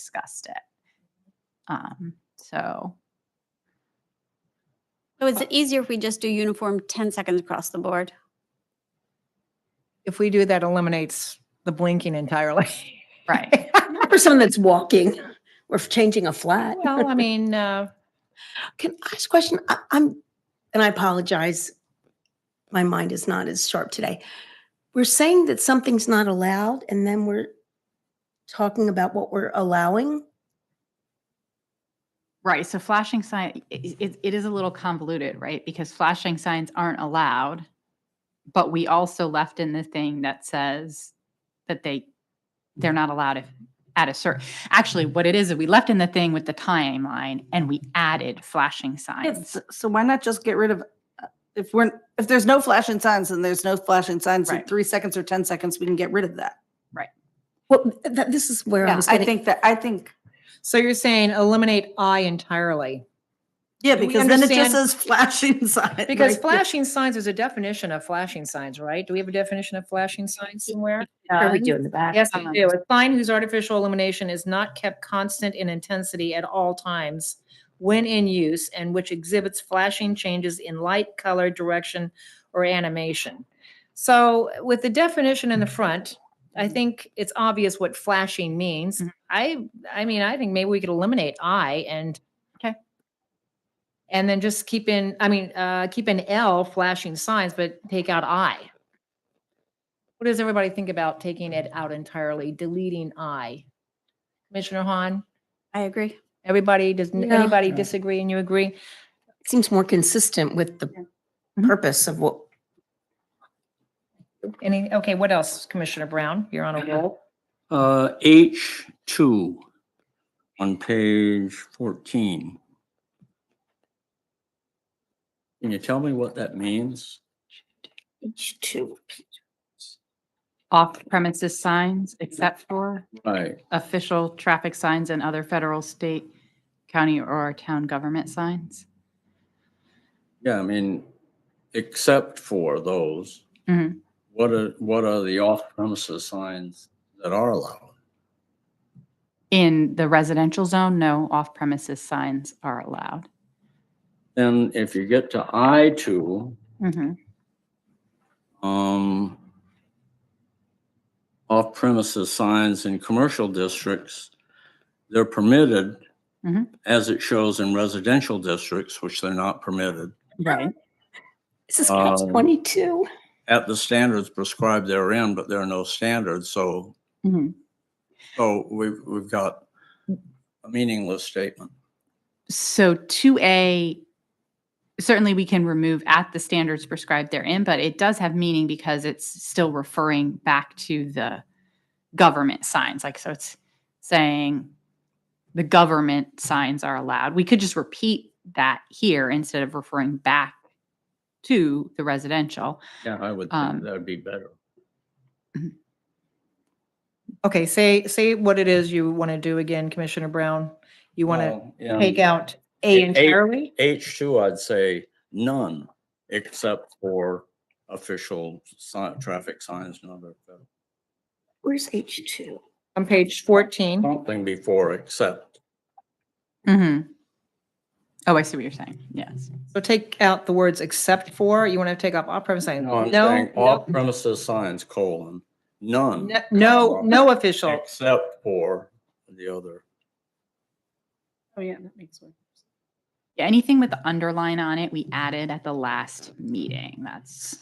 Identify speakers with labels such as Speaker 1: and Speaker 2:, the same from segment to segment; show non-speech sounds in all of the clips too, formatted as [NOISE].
Speaker 1: discussed it. Um,
Speaker 2: [LAUGHS]
Speaker 1: so
Speaker 3: So is it easier if we just do uniform 10 seconds across the board?
Speaker 4: If we do that eliminates the blinking entirely.
Speaker 1: right.
Speaker 2: Not for someone that's walking or for changing a flat.
Speaker 4: Well, [LAUGHS] I mean, uh,
Speaker 2: Can I ask a question? I, I'm, and I apologize. My mind is not as sharp today. We're saying that something's not allowed and then we're talking about what we're allowing.
Speaker 1: Right. So flashing sign, i- it, it is a little convoluted, right? Because flashing signs aren't allowed, but we also left in the thing that says that they, they're not allowed if at a certain, actually what it is, is we left in the thing with the timeline and we added flashing signs.
Speaker 5: It's, so why not just get rid of, uh, if we're, if there's no flashing signs and there's no flashing signs in
Speaker 1: Right.
Speaker 5: three seconds or 10 seconds, we can get rid of that.
Speaker 2: Well, th- th- this is where I
Speaker 5: Yeah,
Speaker 2: was
Speaker 5: I
Speaker 2: getting.
Speaker 5: think that, I think,
Speaker 4: so you're saying eliminate I entirely?
Speaker 5: yeah,
Speaker 4: Do we
Speaker 5: because then it just
Speaker 4: understand-
Speaker 5: says [LAUGHS] flashing sign.
Speaker 4: Because
Speaker 5: right?
Speaker 4: flashing signs, there's a definition of flashing signs, right? Do we have a definition of flashing signs somewhere?
Speaker 2: Are we doing the back?
Speaker 4: Yes,
Speaker 1: Um,
Speaker 4: we do. A sign whose artificial illumination is not kept constant in intensity at all times when in use and which exhibits flashing changes in light, color, direction, or animation. So with the definition in the front, I think it's obvious what flashing means.
Speaker 1: Mhm.
Speaker 4: I, I mean, I think maybe we could eliminate I and.
Speaker 1: Okay.
Speaker 4: And then just keep in, I mean, uh, keep in L flashing signs, but take out I. What does everybody think about taking it out entirely, deleting I? Commissioner Hahn,
Speaker 3: I agree.
Speaker 4: everybody, does n-
Speaker 2: Yeah.
Speaker 4: anybody disagree and you agree?
Speaker 2: It Seems more consistent with the
Speaker 1: Mhm.
Speaker 2: purpose of what,
Speaker 4: Any, okay, what else, Commissioner Brown? You're on a roll.
Speaker 6: Uh, H two on page fourteen. Can you tell me what that means?
Speaker 1: Off premises signs, except for
Speaker 6: Right,
Speaker 1: official traffic signs and other federal, state, county, or town government signs.
Speaker 6: yeah, I mean, except for those.
Speaker 1: Mhm.
Speaker 6: What are, what are the off premises signs that are allowed?
Speaker 1: In the residential zone, no off premises signs are allowed.
Speaker 6: Then if you get to I two,
Speaker 1: Mhm.
Speaker 6: um, off premises signs in commercial districts, they're permitted
Speaker 1: Mhm.
Speaker 4: Mm-hmm.
Speaker 6: as it shows in residential districts, which they're not permitted,
Speaker 1: Right.
Speaker 2: this is catch
Speaker 6: Um,
Speaker 2: 22.
Speaker 6: at the standards prescribed therein, but there are no standards. So,
Speaker 1: Mhm.
Speaker 6: so we've, we've got a meaningless statement.
Speaker 1: So two A, certainly we can remove at the standards prescribed therein, but it does have meaning because it's still referring back to the government signs. Like, so it's saying the government signs are allowed. We could just repeat that here instead of referring back to the residential.
Speaker 6: Yeah, I would
Speaker 1: Um,
Speaker 6: think that'd be better.
Speaker 4: [CLEARS THROAT] Okay, say, say what it is you want to do again, Commissioner Brown. You want to
Speaker 6: Well, yeah.
Speaker 4: take out A
Speaker 6: A- A-
Speaker 4: entirely?
Speaker 6: H two, I'd say none, except for official sign, traffic signs, and other federal.
Speaker 2: Where's H2?
Speaker 4: On page 14,
Speaker 6: something before except.
Speaker 1: Mhm. Oh, I see what you're saying. Yes.
Speaker 4: so take out the words except for, you want to take off off premise sign?
Speaker 6: No,
Speaker 4: No,
Speaker 6: I'm saying off
Speaker 4: no,
Speaker 6: premises signs, colon, none.
Speaker 4: no, no,
Speaker 6: comma,
Speaker 4: no official.
Speaker 6: Except for the other.
Speaker 5: Oh, yeah, that makes sense.
Speaker 1: Yeah, anything with the underline on it, we added at the last meeting. That's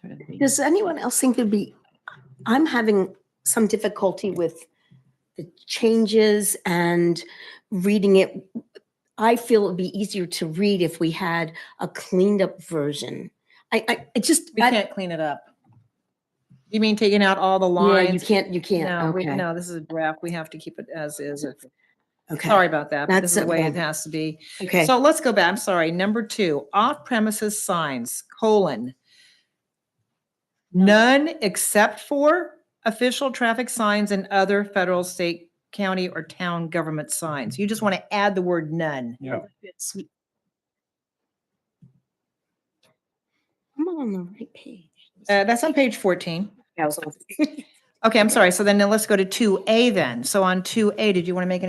Speaker 1: sort of the.
Speaker 2: Does anyone else think it'd be, I'm having some difficulty with the changes and reading it. I feel it'd be easier to read if we had a cleaned up version. I, I, it just,
Speaker 4: We
Speaker 2: I-
Speaker 4: can't clean it up. You mean taking out all the
Speaker 2: yeah, you
Speaker 4: lines?
Speaker 2: can't, you
Speaker 4: No,
Speaker 2: can't,
Speaker 4: we-
Speaker 2: okay.
Speaker 4: no, this is a draft. We have to keep it as is.
Speaker 2: okay,
Speaker 4: Sorry about that. but This is
Speaker 2: That's
Speaker 4: the way it
Speaker 2: okay.
Speaker 4: has to be.
Speaker 2: Okay,
Speaker 4: So let's go back. I'm sorry. Number two, off premises signs, colon. None except for official traffic signs and other federal, state, county, or town government signs. You just want to add the word none.
Speaker 6: Yeah.
Speaker 2: I'm on the right page.
Speaker 4: Uh, that's on [LAUGHS] page 14. Okay, I'm sorry. So then now let's go to 2A then. So on 2A, did you want to make any